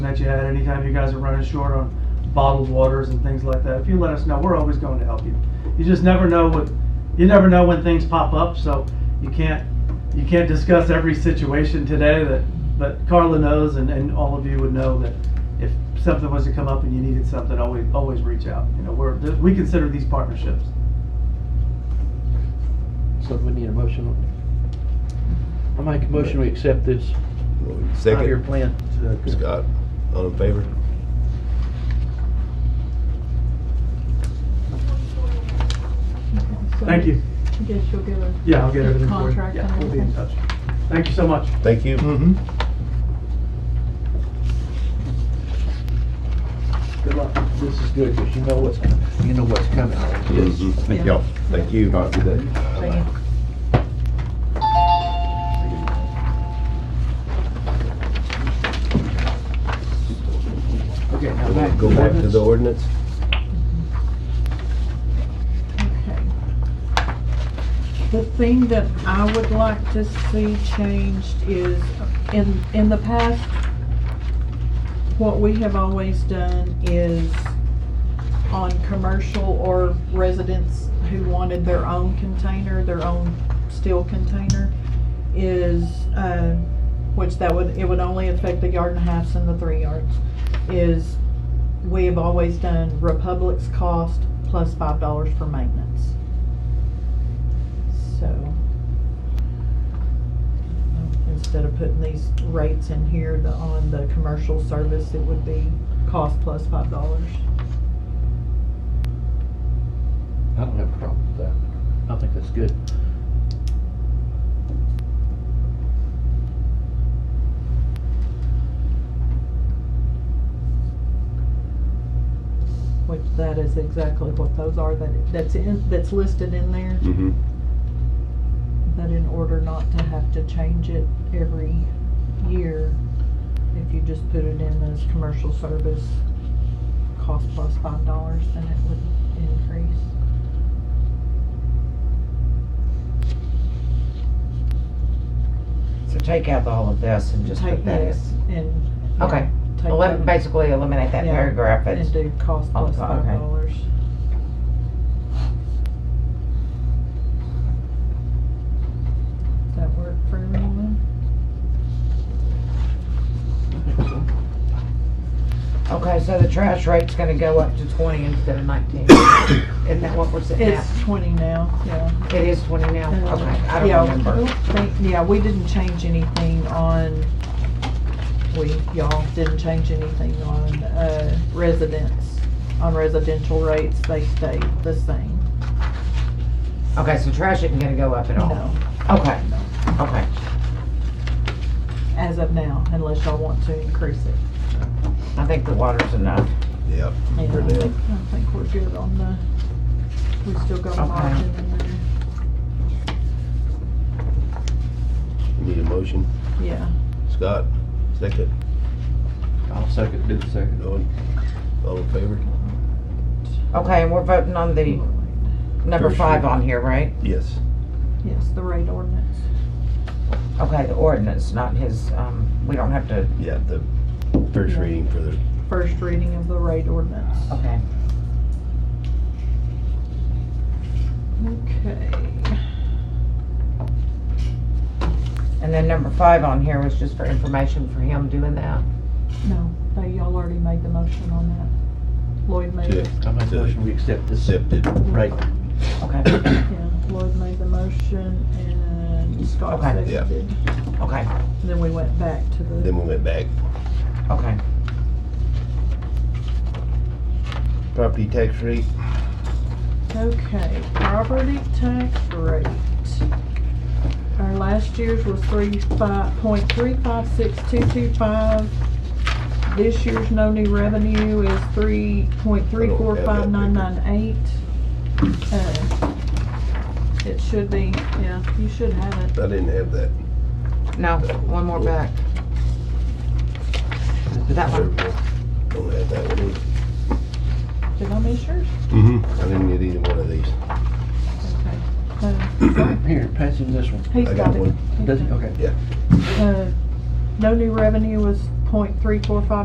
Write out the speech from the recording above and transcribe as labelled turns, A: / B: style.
A: that you had, anytime you guys are running short on bottled waters and things like that, if you let us know, we're always going to help you. You just never know what, you never know when things pop up, so you can't, you can't discuss every situation today that, but Carla knows and, and all of you would know that if something was to come up and you needed something, always, always reach out. You know, we're, we consider these partnerships.
B: So we need a motion on it. I make a motion, we accept this five-year
C: Second,
B: plan.
C: Scott, all in favor?
D: Okay, so
A: Thank you.
D: I guess you'll give us.
A: Yeah, I'll get everything for you.
D: Contract
A: Yeah,
D: and
A: we'll be in touch.
D: everything.
A: Thank you so much.
C: Thank you.
B: Good luck. This is good, because you know what's coming, you know what's coming.
C: Mhm.
D: Yeah.
C: Thank y'all. Thank you. Have a good day.
D: Thank you.
B: Okay, now
C: Bye-bye.
B: back.
C: Go back to the ordinance.
D: Okay. The thing that I would like to see changed is, in, in the past, what we have always done is on commercial or residents who wanted their own container, their own steel container, is, um, which that would, it would only affect the yard and a halfs and the three yards, is we have always done Republic's cost plus five dollars for maintenance. So. Instead of putting these rates in here, the, on the commercial service, it would be cost plus five dollars.
B: I don't have a problem with that. I think that's good.
D: Which that is exactly what those are, that, that's in, that's listed in there,
C: Mm-hmm.
D: that in order not to have to change it every year, if you just put it in as commercial service, cost plus five dollars, then it would increase.
E: So take out all of this and just
D: Take
E: put that in.
D: this and. yeah,
E: Okay.
D: take
E: Elim-
D: that
E: Basically eliminate that
D: Yeah,
E: paragraph. It's-
D: And do cost plus
E: Okay.
D: five dollars. Does that work for everyone?
E: Okay, so the trash rate's gonna go up to twenty instead of nineteen. Isn't that what we're sitting at?
D: It's twenty now, yeah.
E: It is twenty now?
D: Uh,
E: Okay, I
D: yeah,
E: don't remember.
D: I think- Yeah, we didn't change anything on, we, y'all didn't change anything on, uh, residents. On residential rates, they stayed the same.
E: Okay, so trash isn't gonna go up at all?
D: No,
E: Okay,
D: no.
E: okay.
D: as of now, unless y'all want to increase it.
E: I think the water's enough.
C: Yep.
D: Yeah,
C: For
D: I
C: now.
D: think, I think we're good on the, we still got a
E: Okay.
D: margin in there.
C: Need a motion.
D: Yeah,
C: Scott, second.
B: I'll second, do the second.
C: Owen, all in favor?
E: Okay, and we're voting on the number
C: First
E: five
C: reading.
E: on here, right?
C: Yes.
D: yes, the rate ordinance.
E: Okay, the ordinance, not his, um, we don't have to,
C: Yeah, the first
D: Yeah.
C: reading for the,
D: First reading of the rate ordinance.
E: okay.
D: Okay.
E: And then number five on here was just for information for him doing that.
D: No, they, y'all already made the motion on that. Lloyd made it.
B: I make a motion, we accept this.
C: accepted.
B: Right.
E: Okay,
D: Yeah, Lloyd made the motion and Scott
E: Okay.
C: Yeah.
D: seconded.
E: okay,
D: Then we went back to the,
C: Then we went back.
E: okay.
C: Property tax rate.
D: okay, property tax rate. Our last year's was three five, point three five six two two five. This year's no new revenue is three point three four five nine nine eight. Uh, It should be, yeah, you should have it.
C: I didn't have that.
E: No, one more back. That one.
C: Don't have that one either.
D: Did I miss yours?
C: Mm-hmm. I didn't get either one of these.
D: Okay. Uh,
B: Here, pass him this one.
D: He's
C: I
D: got
C: got
D: it.
C: one.
D: He's
B: Does he?
D: got it.
B: Okay.
D: Uh, No new revenue was point three four five